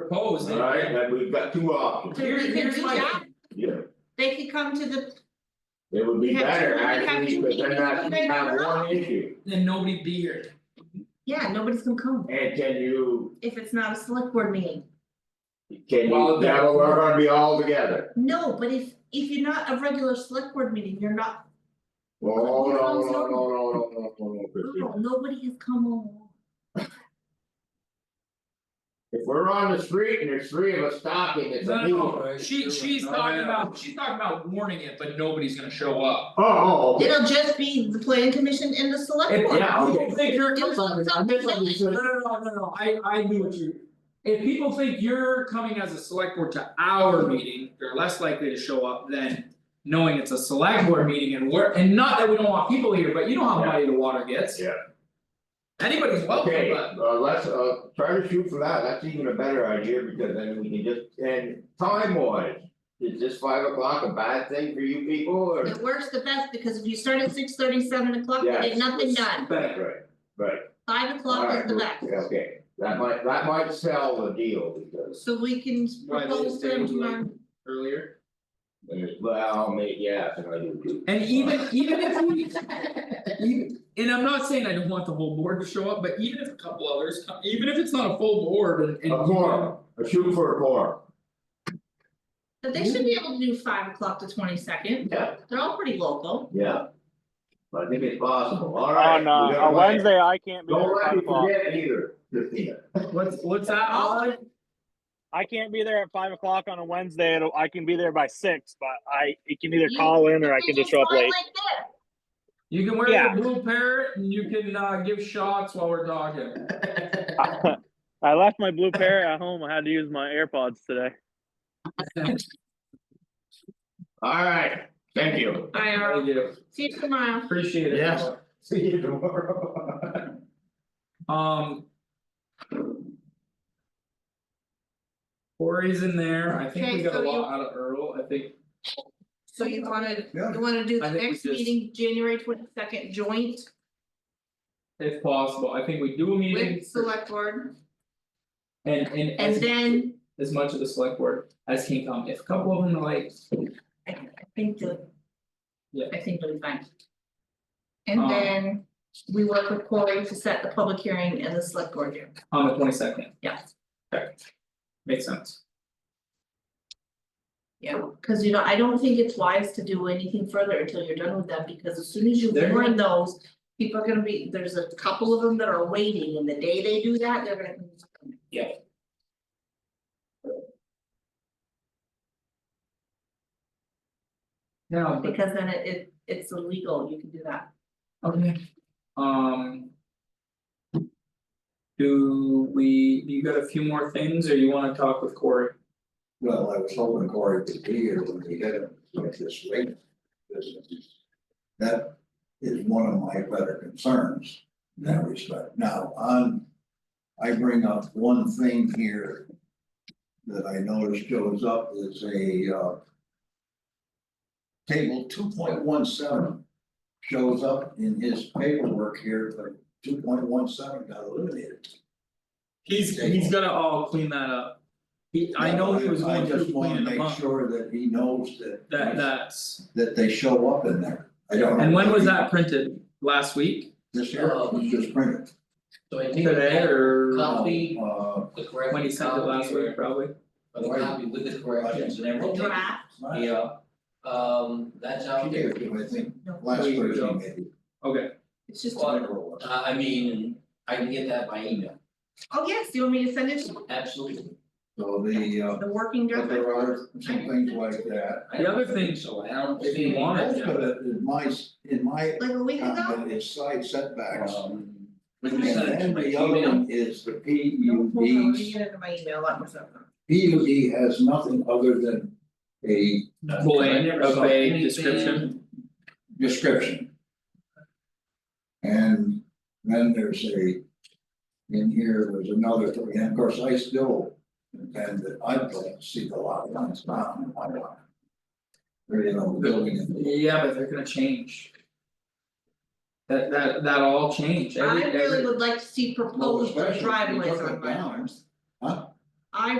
proposed. and- Alright, and we've got two options, Here- They could here's do my- that. yeah, They could come to the, it would be We have to- better we have to actually, because then keep that's it not up. one issue, Then nobody be here. yeah, nobody's gonna come and can you, if it's not a select board meeting. can Well, you, that- now we're gonna be all together. No, but if if you're not a regular select board meeting, you're not, Oh, Well, no, it's no, no, all no, no, no, no, no, Christine. no, nobody has come along. If we're on the street and there's three of us talking, it's No, a meeting. no, Oh, no, she she's talking about, she's talking about warning it, but nobody's gonna show up. oh, okay. It'll just be the planning commission and the select If board. yeah, okay. people think you're, It was on- I no, misunderstood. no, no, no, no, I I knew what you. If people think you're coming as a select board to our meeting, they're less likely to show up than. Knowing it's a select board meeting and we're, and not that we don't want people here, but you know how muddy the water gets. Yeah. Anybody's welcome, Okay, but uh let's uh try to shoot for that, that's even a better idea because then we can just, and time wise. Is this five o'clock a bad thing for you people or? It works the best because if you start at six thirty, seven o'clock, you Yes. get nothing done, better. Right, right. five o'clock is the Alright, best. Okay, that might that might sell the deal because So we can Why they propose stay them late? tomorrow, earlier. there's, well, maybe, yeah, I think I do too. And even even if we, even, and I'm not saying I don't want the whole board to show up, but even if a couple others, come- even if it's not a full board and and. A quorum, a shoot for a quorum. but they should be able to do five o'clock to twenty second, Yeah. they're all pretty local. Yeah. But I think it's possible, alright. On uh, on Wednesday, I can't be there Don't at let five me o'clock. forget either, Christina. What's what's that, Alan? I can't be there at five o'clock on a Wednesday. It'll, I can be there by six, but I it can either You- call in or I can just show up fly late. like this. You can wear Yeah. the blue parrot and you can uh give shots while we're talking. I left my blue pair at home. I had to use my AirPods today. Alright, thank you. I are, Thank you, see you tomorrow. appreciate it. Yes. See you tomorrow. Um. Corey's in there, I think we Okay, got a so you- lot out of Earl, I think, So you wanna, Yeah. you wanna do I the think we next just- meeting, January twenty second joint if possible, I think we do a meeting. with select board? And and And as then, as much of the select board as can come, if a couple of them are like, I I think the. Yeah. I think we'll be fine. And Um, then we work with Corey to set the public hearing and the select board here, on the twenty second, yes, makes sense. yeah, cause you know, I don't think it's wise to do anything further until you're done with them, because as soon as you They're- warn those. People are gonna be, there's a couple of them that are waiting, and the day they do that, they're gonna. No, but, Because then it it it's illegal, you can do that. okay, um. Do we, you got a few more things or you wanna talk with Corey? Well, I was hoping Corey could be here when we hit him with this rate business. That is one of my better concerns in that respect. Now, on, I bring up one thing here that I noticed shows up is a uh table two point one seven shows up in his paperwork here, but two point one seven got eliminated. He's he's gonna all clean that up. He, I know he was I- going I to just wanna clean them make up, sure that he knows that. that that's, that they show up in there. I don't. know. and when was that printed? Last week? This year, it was just printed. So I think Today that or copy, Uh, the correct when he sent it last copy, week, probably? or the copy with the corrections and everything. Draft, Yeah, um, that's she out gave there. it to him, I think, No. last There you go. Thursday maybe. Okay, it's just, Well- whatever it was. Uh, I mean, I can get that by email, oh yes, you want me to send it to absolutely. So the, uh, the working but draft? there are some things like that. I The don't other thing- think So I don't if see you any- want it, Most of it is my, in my Like a week ago? comment is side setbacks. Um, And when you send it to then my the other email, one is the P No, U hold on, let me Ds. get into my email, let me send them. P U D has nothing other than a Full I name, never a saw vague anything. description. description. And then there's a, in here, there's another three, and of course, I still, contend that I don't see the lot lines down in my lot. Or, you know, the building and the- yeah, but they're gonna change. That that that all change, every I really every, would like to see Well, proposed especially if you driveways took on it my down, arms.